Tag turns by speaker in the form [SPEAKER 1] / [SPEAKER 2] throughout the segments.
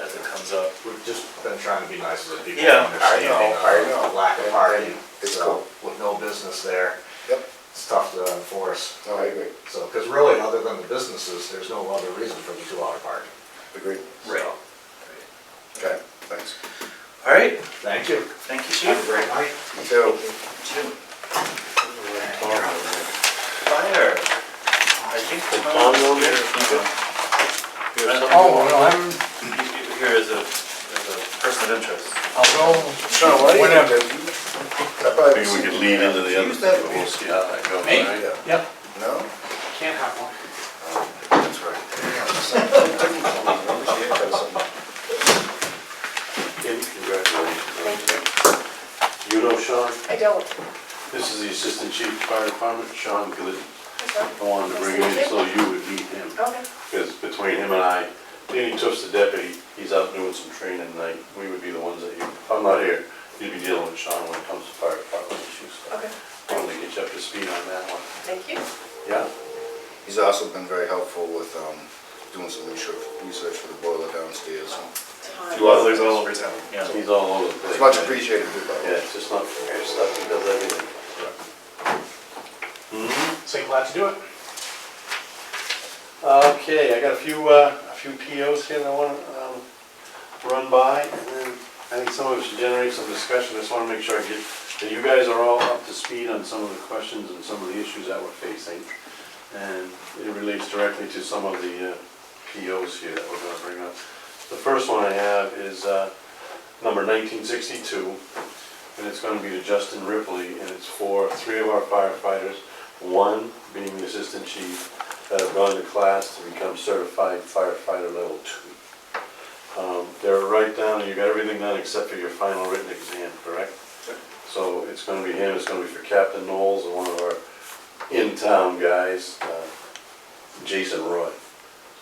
[SPEAKER 1] as it comes up.
[SPEAKER 2] We've just been trying to be nice to the people.
[SPEAKER 1] Yeah, I
[SPEAKER 2] understand
[SPEAKER 3] know, I
[SPEAKER 2] our
[SPEAKER 3] know.
[SPEAKER 2] Lack of
[SPEAKER 3] And-
[SPEAKER 2] parking,
[SPEAKER 3] and it's
[SPEAKER 2] so
[SPEAKER 3] cool.
[SPEAKER 2] with no business there,
[SPEAKER 3] Yep,
[SPEAKER 2] it's tough to enforce.
[SPEAKER 3] no, I agree,
[SPEAKER 2] So, because really, other than the businesses, there's no other reason for the two-hour parking.
[SPEAKER 3] agreed.
[SPEAKER 1] Right.
[SPEAKER 3] Okay, thanks.
[SPEAKER 1] All right,
[SPEAKER 2] Thank you.
[SPEAKER 1] thank you,
[SPEAKER 2] Have a
[SPEAKER 1] chief.
[SPEAKER 2] great night.
[SPEAKER 3] You too.
[SPEAKER 1] Jim. Fire. I think
[SPEAKER 4] Did Tom go
[SPEAKER 1] Tom's
[SPEAKER 4] there?
[SPEAKER 1] here.
[SPEAKER 5] Oh, well, I'm,
[SPEAKER 1] He's Here is a, is a person of interest.
[SPEAKER 5] I'll go
[SPEAKER 3] Sean, why do you have
[SPEAKER 5] Whatever.
[SPEAKER 3] that? I probably
[SPEAKER 4] Maybe we could
[SPEAKER 3] seen
[SPEAKER 4] lean
[SPEAKER 3] you.
[SPEAKER 4] into the other
[SPEAKER 3] Use that
[SPEAKER 4] stuff, but we'll see how that goes.
[SPEAKER 1] Me?
[SPEAKER 4] right?
[SPEAKER 3] Yeah.
[SPEAKER 5] Yep.
[SPEAKER 3] No?
[SPEAKER 5] Can't have one.
[SPEAKER 3] That's right. Congratulations.
[SPEAKER 4] Kim, congratulations. You know Sean,
[SPEAKER 6] I don't.
[SPEAKER 4] this is the Assistant Chief of Fire Department, Sean Glidden. I wanted to bring him in so you would meet him,
[SPEAKER 6] Okay.
[SPEAKER 4] because between him and I, Danny Tufts, the deputy, he's out doing some training tonight. We would be the ones that, you- if I'm not here, you'd be dealing with Sean when it comes to fire department issues. So
[SPEAKER 6] Okay,
[SPEAKER 4] I wanted to get you up to speed on that one.
[SPEAKER 6] thank you.
[SPEAKER 4] Yeah?
[SPEAKER 3] He's also been very helpful with, um, doing some research, research for the boiler downstairs.
[SPEAKER 6] Time.
[SPEAKER 1] Well, there's all over town, yeah.
[SPEAKER 4] He's all over the place.
[SPEAKER 3] It's much
[SPEAKER 4] man.
[SPEAKER 3] appreciated, too, by the way.
[SPEAKER 4] Yeah, it's just not fair stuff, he does everything. Mhm.
[SPEAKER 2] So glad to do it.
[SPEAKER 4] Okay, I got a few, uh, a few POs here that I want to run by, and then I think some of it should generate some discussion, I just want to make sure I get, that you guys are all up to speed on some of the questions and some of the issues that we're facing. And it relates directly to some of the uh, POs here that we're going to bring up. The first one I have is uh, number 1962, and it's going to be to Justin Ripley, and it's for three of our firefighters, one being the assistant chief, that have gone to class to become certified firefighter level two. Um, They're right down, you got everything done except for your final written exam, correct? So it's going to be him, it's going to be for Captain Knowles and one of our in-town guys, uh, Jason Roy.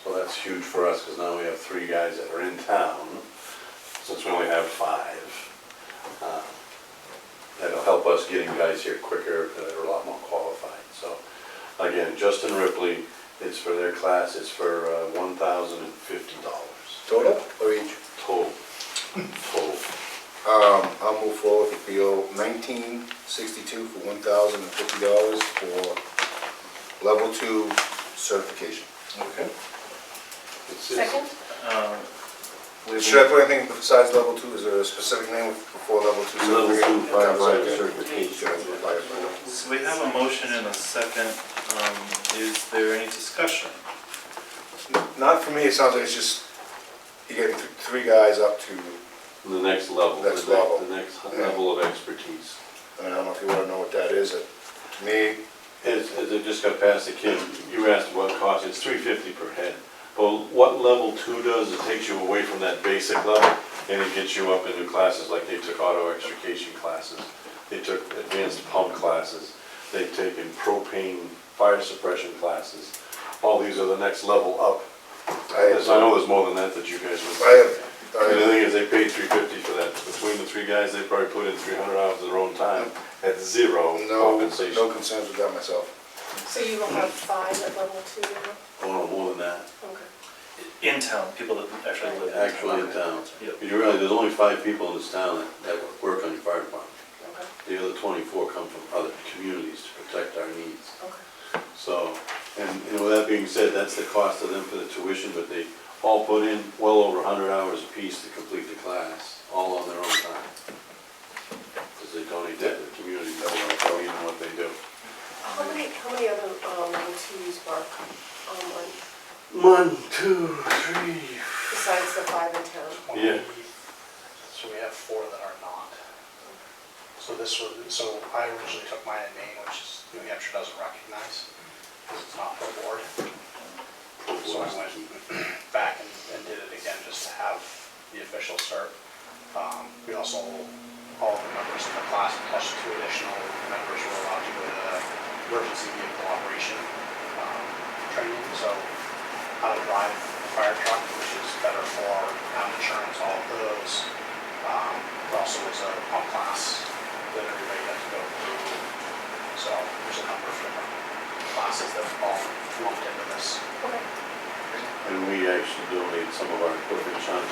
[SPEAKER 4] So that's huge for us because now we have three guys that are in town, since we only have five. Uh, That'll help us getting guys here quicker that are a lot more qualified, so. Again, Justin Ripley, it's for their class, it's for uh, one thousand and fifty dollars
[SPEAKER 3] Total or each?
[SPEAKER 4] total. Total.
[SPEAKER 3] Um, I'll move forward with PO nineteen sixty-two for one thousand and fifty dollars for level two certification.
[SPEAKER 2] Okay.
[SPEAKER 4] It's- it's-
[SPEAKER 6] Second?
[SPEAKER 1] Um, we-
[SPEAKER 3] Should I put anything besides level two, is there a specific name before level two?
[SPEAKER 4] Level two
[SPEAKER 3] certification? Should
[SPEAKER 4] firefighter
[SPEAKER 3] I do
[SPEAKER 4] certification.
[SPEAKER 3] firefighter?
[SPEAKER 1] So we have a motion and a second. Um, Is there any discussion?
[SPEAKER 3] Not for me, it sounds like it's just, you get th- three guys up to,
[SPEAKER 4] The next level.
[SPEAKER 3] Next
[SPEAKER 4] the ne-
[SPEAKER 3] level.
[SPEAKER 4] The next
[SPEAKER 3] Yeah.
[SPEAKER 4] level of expertise.
[SPEAKER 3] I mean, I don't know if you wanna know what that is, it, to me,
[SPEAKER 4] As, as I just got past the kid, you asked what cost, it's three fifty per head. But what level two does, it takes you away from that basic level, and it gets you up into classes, like they took auto extrication classes, they took advanced pump classes, they've taken propane fire suppression classes. All these are the next level up.
[SPEAKER 3] I
[SPEAKER 4] As I
[SPEAKER 3] have,
[SPEAKER 4] know there's more than that that you guys would.
[SPEAKER 3] I have,
[SPEAKER 4] And the
[SPEAKER 3] I
[SPEAKER 4] thing is, they paid three fifty for that, between the three guys, they probably put in three hundred hours of their own time at zero
[SPEAKER 3] have no,
[SPEAKER 4] compensation.
[SPEAKER 3] no concerns with that myself.
[SPEAKER 6] So you will have five at level two now?
[SPEAKER 4] Oh, no, more than that.
[SPEAKER 6] Okay.
[SPEAKER 1] In town, people that actually live in town.
[SPEAKER 4] actually in town.
[SPEAKER 1] Yep.
[SPEAKER 4] You realize there's only five people in this town that, that work on your fire department.
[SPEAKER 6] Okay,
[SPEAKER 4] The other twenty-four come from other communities to protect our needs.
[SPEAKER 6] okay.
[SPEAKER 4] So, and, and with that being said, that's the cost of them for the tuition, but they all put in well over hundred hours apiece to complete the class, all on their own time. Because they donate that to the community, they don't tell you what they do.
[SPEAKER 6] How many, how many other, um, level twos work online
[SPEAKER 4] One, two, three,
[SPEAKER 6] besides the five in town?
[SPEAKER 4] Yeah.
[SPEAKER 7] So we have four that are not. So this was, so I originally took mine in Maine, which is New Hampshire doesn't recognize, because it's not per board. So I went back and, and did it again just to have the official cert. Um, we also, all the members in the class plus two additional members were allowed to go to emergency vehicle operation, um, training, so how to drive a fire truck, which is better for town insurance, all of those. Um, it also is a pump class that everybody has to go through. So there's a number of different classes that are all lumped into this.
[SPEAKER 6] Okay.
[SPEAKER 4] And we actually donate some of our equipment, Sean